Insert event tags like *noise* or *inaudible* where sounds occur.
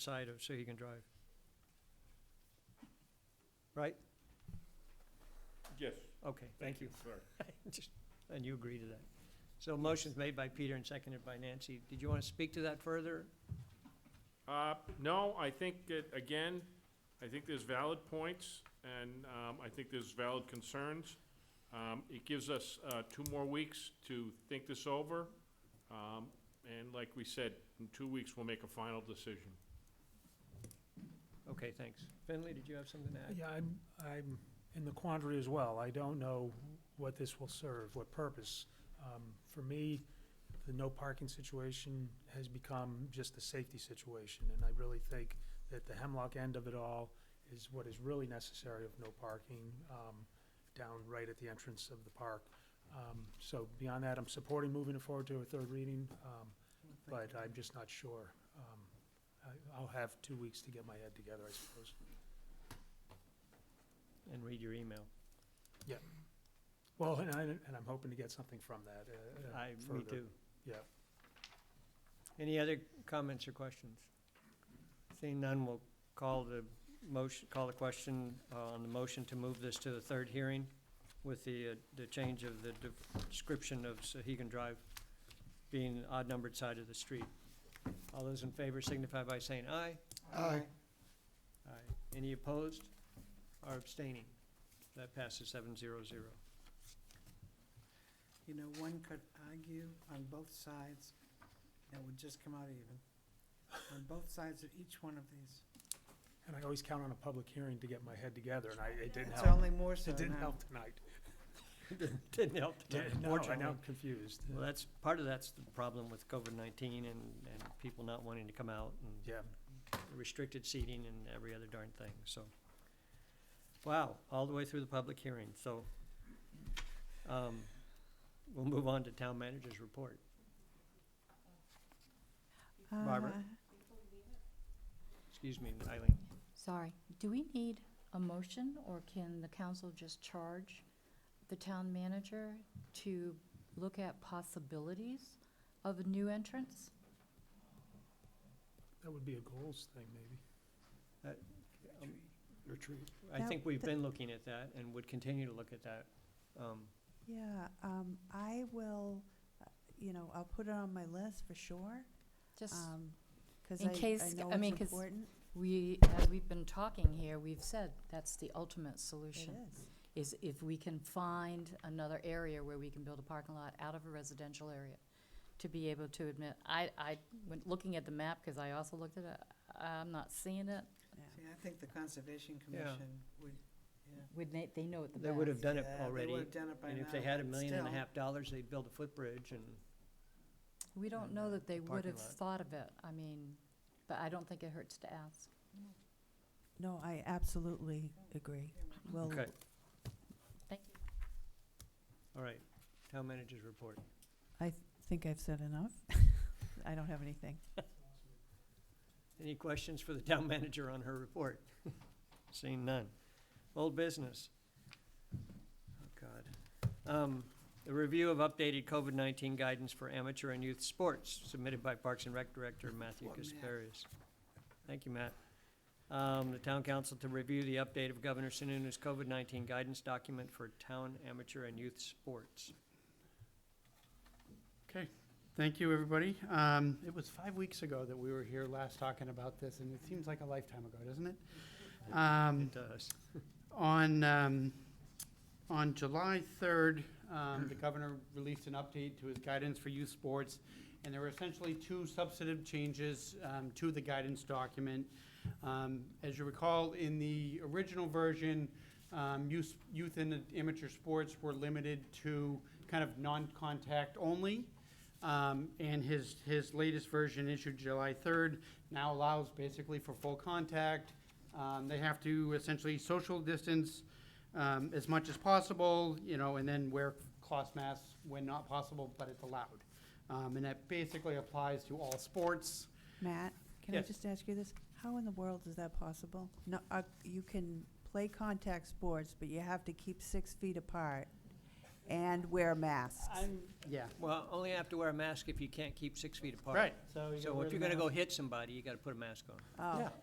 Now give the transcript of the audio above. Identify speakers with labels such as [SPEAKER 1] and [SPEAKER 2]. [SPEAKER 1] side of, so he can drive. Right?
[SPEAKER 2] Yes.
[SPEAKER 1] Okay, thank *laughs* you.
[SPEAKER 2] Sorry.
[SPEAKER 1] Just- And you agree to that. So motion's made by Peter and seconded by Nancy. Did you want to speak to that further?
[SPEAKER 2] Uh, no, I think that, again, I think there's valid points, and, um, I think there's valid concerns. Um, it gives us, uh, two more weeks to think this over, um, and like we said, in two weeks, we'll make a final decision.
[SPEAKER 1] Okay, thanks. Finley, did you have something to add?
[SPEAKER 3] Yeah, I'm, I'm in the quandary as well. I don't know what this will serve, what purpose. Um, For me, the no parking situation has become just the safety situation, and I really think that the Hemlock end of it all is what is really necessary of no parking um, down right at the entrance of the park. Um, So beyond that, I'm supporting moving it forward to a third reading, um, but I'm just not sure. Um, I- I'll have two weeks to get my head together, I suppose.
[SPEAKER 1] And read your email.
[SPEAKER 3] Well, and I, and I'm hoping to get something from that. uh, uh,
[SPEAKER 1] I, me
[SPEAKER 3] further.
[SPEAKER 1] too.
[SPEAKER 3] Yeah.
[SPEAKER 1] Any other comments or questions? Seeing none, we'll call the motion, call the question uh, on the motion to move this to the third hearing with the, uh, the change of the de- description of Sahegan Drive being the odd-numbered side of the street. All those in favor signify by saying aye.
[SPEAKER 4] Aye.
[SPEAKER 1] Aye. Any opposed or abstaining? That passes seven zero *laughs* zero.
[SPEAKER 4] You know, one could argue on both sides, that would just come out even, on both sides of each one of these.
[SPEAKER 3] And I always count on a public hearing to get my head together, and I, it didn't
[SPEAKER 4] It's
[SPEAKER 3] help.
[SPEAKER 4] only more so
[SPEAKER 3] It didn't
[SPEAKER 4] now.
[SPEAKER 3] help tonight.
[SPEAKER 1] Didn't help.
[SPEAKER 3] No, I'm now confused.
[SPEAKER 1] Well, that's, part of that's the problem with COVID-19 and, and people not wanting to come out and
[SPEAKER 3] Yeah,
[SPEAKER 1] restricted seating and every other darn thing, so. Wow, all the way through the public hearing, so, um, we'll move on to town manager's report. Barbara?
[SPEAKER 5] Uh,
[SPEAKER 1] Excuse me, Eileen.
[SPEAKER 5] Sorry, do we need a motion, or can the council just charge the town manager to look at possibilities of a new entrance?
[SPEAKER 3] that would be a goals thing, maybe.
[SPEAKER 1] Um,
[SPEAKER 3] Retreat.
[SPEAKER 1] I think we've been looking at that and would continue to look at that. Um,
[SPEAKER 6] Yeah, um, I will, uh, you know, I'll put it on my list for sure,
[SPEAKER 5] Just,
[SPEAKER 6] um, cause
[SPEAKER 5] In
[SPEAKER 6] I, I
[SPEAKER 5] case-
[SPEAKER 6] know
[SPEAKER 5] I mean,
[SPEAKER 6] it's
[SPEAKER 5] 'cause
[SPEAKER 6] important.
[SPEAKER 5] we, as we've been talking here, we've said that's the ultimate
[SPEAKER 6] It
[SPEAKER 5] solution,
[SPEAKER 6] is.
[SPEAKER 5] is if we can find another area where we can build a parking lot out of a residential area to be able to admit, I, I, when looking at the map, because I also looked at it, I'm not seeing it.
[SPEAKER 6] See, I think the Conservation Commission would, yeah.
[SPEAKER 5] Would they, they know it the best.
[SPEAKER 1] They would have done it
[SPEAKER 6] Yeah, They
[SPEAKER 1] already,
[SPEAKER 6] would've done it by now.
[SPEAKER 1] and if they had a
[SPEAKER 6] but
[SPEAKER 1] million and a
[SPEAKER 6] still.
[SPEAKER 1] half dollars, they'd build a footbridge and.
[SPEAKER 5] We don't
[SPEAKER 1] and,
[SPEAKER 5] know
[SPEAKER 1] uh,
[SPEAKER 5] that they would
[SPEAKER 1] parking
[SPEAKER 5] have
[SPEAKER 1] lot.
[SPEAKER 5] thought of it, I mean, but I don't think it hurts to ask.
[SPEAKER 6] No, I absolutely agree. Well,
[SPEAKER 1] Okay.
[SPEAKER 5] Thank you.
[SPEAKER 1] All right, town manager's report.
[SPEAKER 6] I think I've said enough. I don't have anything.
[SPEAKER 1] Any questions for the town *laughs* manager on her report? *laughs* Seeing none. Old business. Oh, God. Um, The review of updated COVID-19 guidance for amateur and youth sports submitted by Parks and Rec Director Matthew
[SPEAKER 4] Poor Matt.
[SPEAKER 1] Kasparius. Thank you, Matt. Um, The town council to review the update of Governor Sununu's COVID-19 guidance document for town amateur and youth sports.
[SPEAKER 7] Okay, thank you, everybody. Um, It was five weeks ago that we were here last talking about this, and it seems like a lifetime ago, doesn't it? Um,
[SPEAKER 1] It uh, does.
[SPEAKER 7] On, um, on July 3rd, um, the governor released an update to his guidance for youth sports, and there were essentially two substantive changes um, to the guidance document. Um, As you recall, in the original version, um, youth youth and amateur sports were limited to kind of non-contact only. Um, and his, his latest version issued July 3rd now allows basically for full contact. Um, they have to essentially social distance um, as much as possible, you know, and then wear cloth masks when not possible, but it's allowed. Um, and that basically applies to all sports.
[SPEAKER 6] Matt, can I
[SPEAKER 7] Yes.
[SPEAKER 6] just ask you this? How in the world is that possible? No, uh, you can play contact sports, but you have to keep six feet apart. and wear masks.
[SPEAKER 7] I'm, yeah,
[SPEAKER 1] Well, only have to wear a mask if you can't keep six feet apart.
[SPEAKER 7] right, so Oh, you gotta
[SPEAKER 1] So
[SPEAKER 7] wear
[SPEAKER 1] if
[SPEAKER 7] the
[SPEAKER 1] you're gonna go
[SPEAKER 7] mask.
[SPEAKER 1] hit somebody, you gotta put a mask on.
[SPEAKER 6] Oh.
[SPEAKER 7] Yeah.